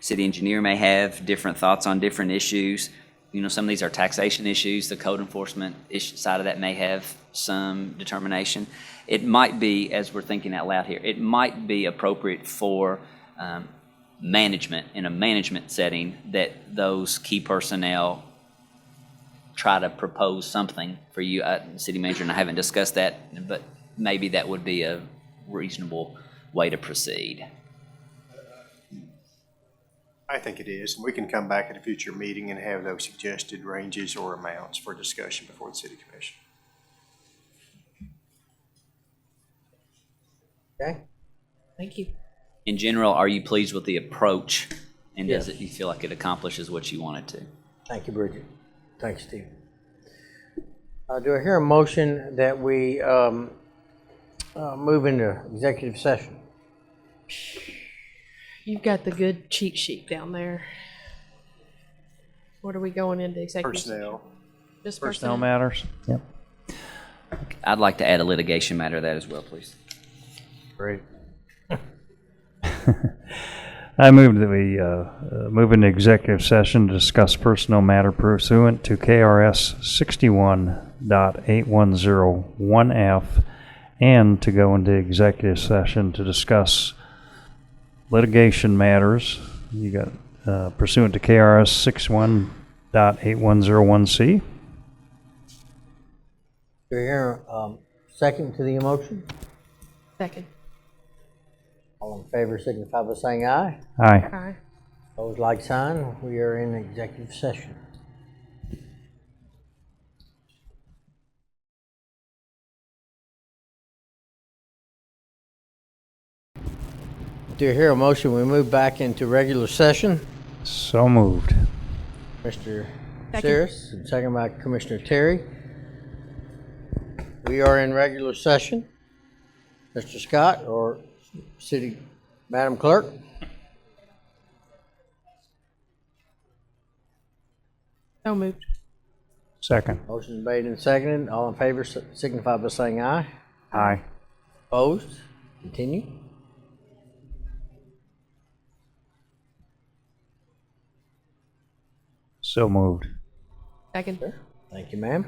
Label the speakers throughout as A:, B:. A: city engineer may have, different thoughts on different issues. You know, some of these are taxation issues, the code enforcement issue, side of that may have some determination. It might be, as we're thinking out loud here, it might be appropriate for, um, management, in a management setting, that those key personnel try to propose something for you, uh, city manager, and I haven't discussed that, but maybe that would be a reasonable way to proceed.
B: I think it is, and we can come back at a future meeting and have those suggested ranges or amounts for discussion before the city commission.
C: Okay.
D: Thank you.
A: In general, are you pleased with the approach? And does it,
C: Yes.
A: you feel like it accomplishes what you want it to?
C: Thank you, Bridget. Thanks, Steve. Uh, do I hear a motion that we, um, uh, move into executive session?
D: You've got the good cheat sheet down there. What are we going into executive? session?
B: Personnel,
D: Just personnel.
E: Personnel matters. Yep.
A: I'd like to add a litigation matter to that as well, please.
C: Great.
E: I move that we uh, uh, move into executive session to discuss personnel matter pursuant to KRS 61.8101F and to go into executive session to discuss litigation matters. You got uh, pursuant to KRS 61.8101C.
C: Do you hear um, second to the motion?
D: Second.
C: All in favor signify by saying aye.
E: Aye.
D: Aye.
C: Opposed, like sign. We are in executive session. Do you hear a motion? We move back into regular session.
E: So moved.
C: Mr.
D: Second.
C: Cyrus, and second by Commissioner Terry. We are in regular session. Mr. Scott or City, Madam Clerk?
D: So moved.
E: Second.
C: Motion made and seconded. All in favor si- signify by saying aye.
E: Aye.
C: Opposed? Continue.
E: So moved.
D: Second.
C: Thank you, ma'am.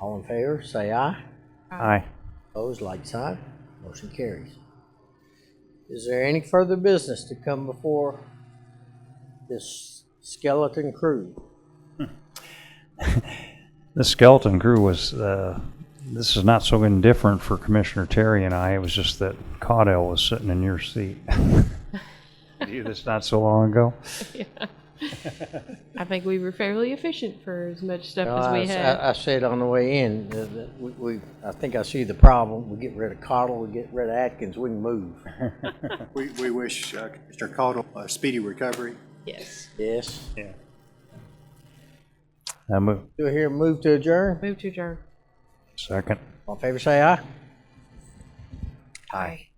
C: All in favor, say aye.
E: Aye.
C: Opposed, like sign. Motion carries. Is there any further business to come before this skeleton crew?
E: The skeleton crew was, uh, this is not so indifferent for Commissioner Terry and I. It was just that Caudell was sitting in your seat. Did you hear this not so long ago?
D: I think we were fairly efficient for as much stuff
C: Well,
D: as
C: I
D: we
C: s-
D: had.
C: I, I said on the way in, uh, that we, we, I think I see the problem. We get rid of Cottle, we get rid of Atkins, we can move.
B: we, we wish uh, Mr. Caudle a speedy recovery.
D: Yes.
C: Yes.
E: I move,
C: Do I hear a move to adjourn?
D: Move to adjourn.
E: second.
C: All in favor, say aye.
D: Aye.